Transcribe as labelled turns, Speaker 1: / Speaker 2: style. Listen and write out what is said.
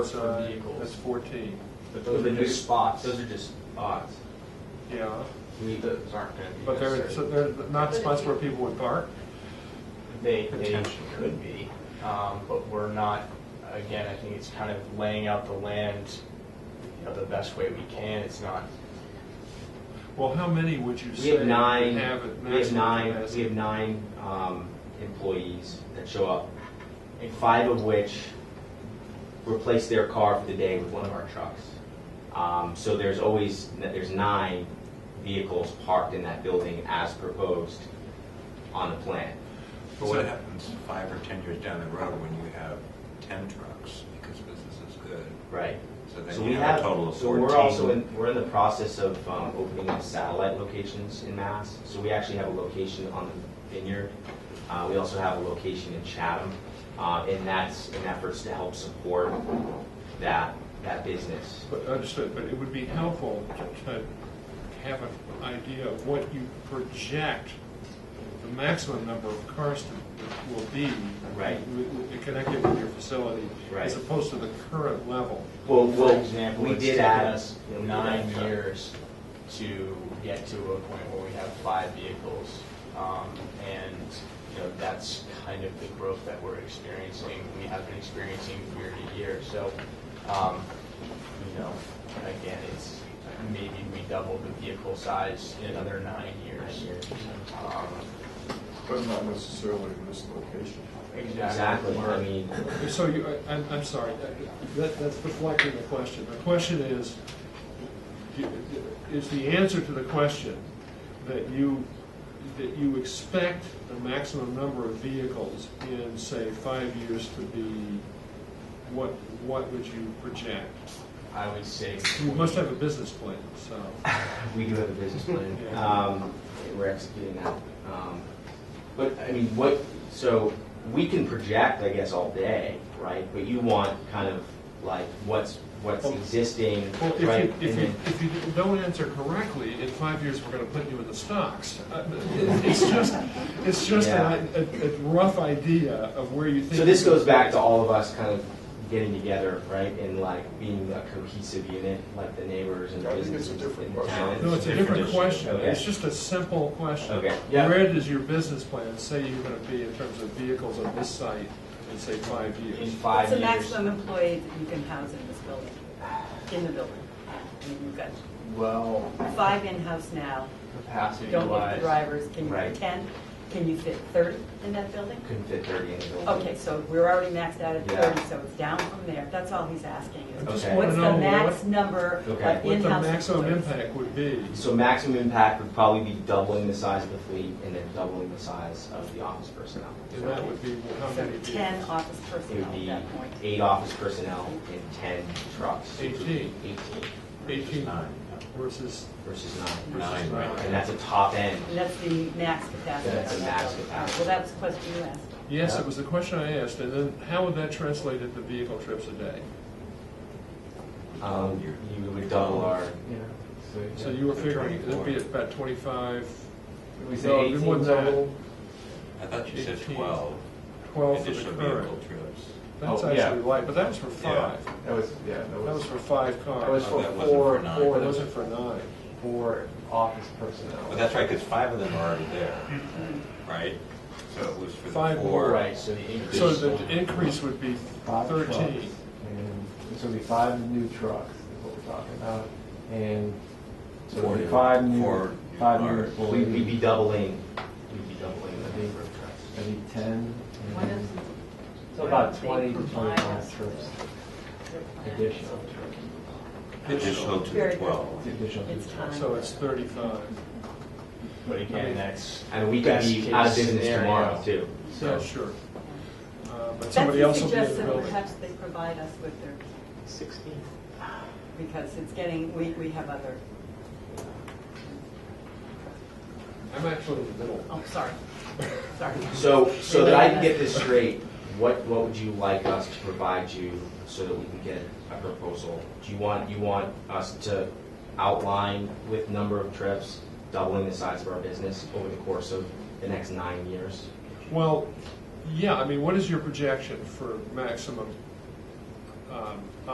Speaker 1: Those are
Speaker 2: Uh,
Speaker 1: vehicles.
Speaker 2: That's 14.
Speaker 1: But
Speaker 3: Those are just spots.
Speaker 1: Those are just spots.
Speaker 2: Yeah,
Speaker 3: I mean, those aren't gonna be
Speaker 2: but they're, so
Speaker 3: necessary.
Speaker 2: they're not spots where people would park?
Speaker 1: They, they
Speaker 3: Potentially.
Speaker 1: could be, um, but we're not, again, I think it's kind of laying out the land, you know, the best way we can. It's not,
Speaker 2: Well, how many would you
Speaker 3: We
Speaker 2: say?
Speaker 3: have nine,
Speaker 2: have at
Speaker 3: we have
Speaker 2: maximum
Speaker 3: nine, we
Speaker 2: capacity?
Speaker 3: have nine um, employees that show up, and five of which replace their car for the day with one of our trucks. Um, So there's always, there's nine vehicles parked in that building as proposed on the plan.
Speaker 4: But what happens five or 10 years down the road when you have 10 trucks because business is good?
Speaker 3: Right.
Speaker 4: So
Speaker 3: So
Speaker 4: then
Speaker 3: we
Speaker 4: you have
Speaker 3: have,
Speaker 4: a total of 14.
Speaker 3: so we're also in, we're in the process of um, opening up satellite locations in Mass. So we actually have a location on the Vineyard. Uh, We also have a location in Chatham. uh, And that's in efforts to help support that, that business.
Speaker 2: But understood, but it would be helpful to- to have an idea of what you project the maximum number of cars to, will be.
Speaker 3: Right.
Speaker 2: w- w- Connected with your facility.
Speaker 3: Right.
Speaker 2: As opposed to the current level.
Speaker 3: Well,
Speaker 1: for
Speaker 3: well,
Speaker 1: example,
Speaker 3: we
Speaker 1: it's
Speaker 3: did
Speaker 1: taken
Speaker 3: add.
Speaker 1: us nine years to get to a point where we have five vehicles. Um, and, you know, that's kind of the growth that we're experiencing. We have been experiencing year to year. So, um, you know, again, it's, maybe we double the vehicle size in another nine years. Um,
Speaker 5: But not necessarily in this location.
Speaker 3: Exactly, I
Speaker 1: We're-
Speaker 3: mean,
Speaker 2: So you, I- I'm, I'm sorry, that, that's deflecting the question. The question is, is the answer to the question that you, that you expect the maximum number of vehicles in, say, five years to be, what, what would you project?
Speaker 1: I would say.
Speaker 2: You must have a business plan, so.
Speaker 3: We do have a business plan.
Speaker 2: Yeah.
Speaker 3: Um, We're executing that. Um, But, I mean, what, so we can project, I guess, all day, right? But you want kind of like what's, what's
Speaker 2: Well-
Speaker 3: existing,
Speaker 2: Well, if
Speaker 3: right? Mm-hmm.
Speaker 2: you, if
Speaker 3: And
Speaker 2: you,
Speaker 3: then-
Speaker 2: if you don't answer correctly, in five years, we're gonna put you in the stocks. Uh, It's just, it's just a, a a rough idea of where you think.
Speaker 3: So this goes back to all of us kind of getting together, right? And like being a cohesive unit, like the neighbors and
Speaker 5: I think it's
Speaker 3: businesses
Speaker 5: a
Speaker 3: and
Speaker 5: different
Speaker 3: the
Speaker 5: question.
Speaker 3: towns.
Speaker 2: No, it's a different question.
Speaker 3: Okay.
Speaker 2: It's just a simple question.
Speaker 3: Okay.
Speaker 1: Yeah.
Speaker 2: Where does your business plan say you're gonna be in terms of vehicles on this site in, say, five
Speaker 1: In
Speaker 2: years?
Speaker 1: five
Speaker 6: It's the
Speaker 1: years.
Speaker 6: maximum employees that you can house in this building, in the building. I mean, You've got
Speaker 1: Well,
Speaker 6: five in-house now,
Speaker 1: capacity
Speaker 6: don't get
Speaker 1: wise.
Speaker 6: the drivers, can you
Speaker 3: Right.
Speaker 6: fit 10? Can you fit 30 in that building?
Speaker 3: Couldn't fit thirty in the building.
Speaker 6: Okay, so we're already maxed out at
Speaker 3: Yeah.
Speaker 6: 30, so it's down from there, that's all he's asking
Speaker 2: I just
Speaker 6: is,
Speaker 3: Okay.
Speaker 2: wanna
Speaker 6: what's the
Speaker 2: know
Speaker 6: max
Speaker 2: what-
Speaker 6: number of
Speaker 3: Okay.
Speaker 6: in-house?
Speaker 2: What the maximum
Speaker 6: employees?
Speaker 2: impact would be.
Speaker 3: So maximum impact would probably be doubling the size of the fleet and then doubling the size of the office personnel.
Speaker 2: And that would be how many
Speaker 6: So 10
Speaker 2: vehicles?
Speaker 6: office
Speaker 3: It would
Speaker 6: personnel at
Speaker 3: be
Speaker 6: that point.
Speaker 3: eight office personnel and ten trucks.
Speaker 2: Eighteen.
Speaker 3: Eighteen
Speaker 2: Eighteen
Speaker 4: Nine,
Speaker 2: versus,
Speaker 3: versus nine.
Speaker 2: versus
Speaker 4: Nine.
Speaker 3: And
Speaker 2: nine.
Speaker 3: that's a top end.
Speaker 6: And that's the max capacity.
Speaker 3: That's
Speaker 6: on
Speaker 3: the
Speaker 6: that
Speaker 3: max
Speaker 6: building.
Speaker 3: capacity.
Speaker 6: Well, that was the question you asked.
Speaker 2: Yes,
Speaker 3: Yeah.
Speaker 2: it was the question I asked, and then how would that translate into vehicle trips a day?
Speaker 3: Um, you would double our,
Speaker 2: So you were
Speaker 4: So
Speaker 2: figuring it'd be
Speaker 4: 24.
Speaker 2: about twenty-five,
Speaker 3: we
Speaker 2: say No, it'd be more 18 than that. total?
Speaker 4: I thought you said
Speaker 2: 15.
Speaker 4: 12
Speaker 2: twelve for the
Speaker 4: additional
Speaker 2: current.
Speaker 4: vehicle trips.
Speaker 2: That's
Speaker 7: Oh, yeah.
Speaker 2: actually light, but that was for
Speaker 4: Yeah.
Speaker 2: five.
Speaker 7: That was, yeah, that
Speaker 2: That was
Speaker 7: was
Speaker 2: for five cars.
Speaker 7: That was
Speaker 4: Oh,
Speaker 7: for
Speaker 4: that wasn't
Speaker 7: four,
Speaker 4: for nine.
Speaker 7: four,
Speaker 2: But it
Speaker 7: those are
Speaker 2: wasn't for nine.
Speaker 7: four office
Speaker 4: But
Speaker 7: personnel.
Speaker 4: that's right, because five of them are already there, right? So it was for the
Speaker 2: Five
Speaker 4: four.
Speaker 1: Right, so the increase.
Speaker 2: So the increase would be
Speaker 7: Five trucks,
Speaker 2: thirteen.
Speaker 7: And it's gonna be five new trucks, is what we're talking about, and so
Speaker 4: Four
Speaker 7: it'll be
Speaker 4: new-
Speaker 7: five new,
Speaker 4: four new
Speaker 7: five new
Speaker 4: cars.
Speaker 3: we'd, we'd be
Speaker 7: employees.
Speaker 3: doubling, we'd be doubling the number of trucks.
Speaker 7: That'd be ten,
Speaker 6: What
Speaker 7: and
Speaker 6: is-
Speaker 7: then, so about
Speaker 6: They
Speaker 7: twenty to
Speaker 6: provide us
Speaker 7: twenty-five trips,
Speaker 6: their plan.
Speaker 7: additional,
Speaker 4: Additional to the
Speaker 6: Very
Speaker 4: 12.
Speaker 7: additional.
Speaker 6: It's
Speaker 7: trips.
Speaker 6: time.
Speaker 2: So it's thirty-five.
Speaker 1: But again, that's.
Speaker 3: And we could be
Speaker 1: Best
Speaker 3: out of
Speaker 1: case
Speaker 3: business tomorrow
Speaker 1: scenario.
Speaker 3: too.
Speaker 2: Yeah,
Speaker 3: So
Speaker 2: sure. Uh, But
Speaker 6: Betsy
Speaker 2: somebody else will be in the
Speaker 6: suggested
Speaker 2: building.
Speaker 6: Perhaps they provide us with their,
Speaker 3: sixteen.
Speaker 6: because it's getting, we, we have other,
Speaker 2: I'm actually in the middle.
Speaker 6: oh, sorry, sorry.
Speaker 3: So, so that I can get this straight, what, what would you like us to provide you so that we can get a proposal? Do you want, you want us to outline with number of trips, doubling the size of our business over the course of the next nine years?
Speaker 2: Well, yeah, I mean, what is your projection for maximum um,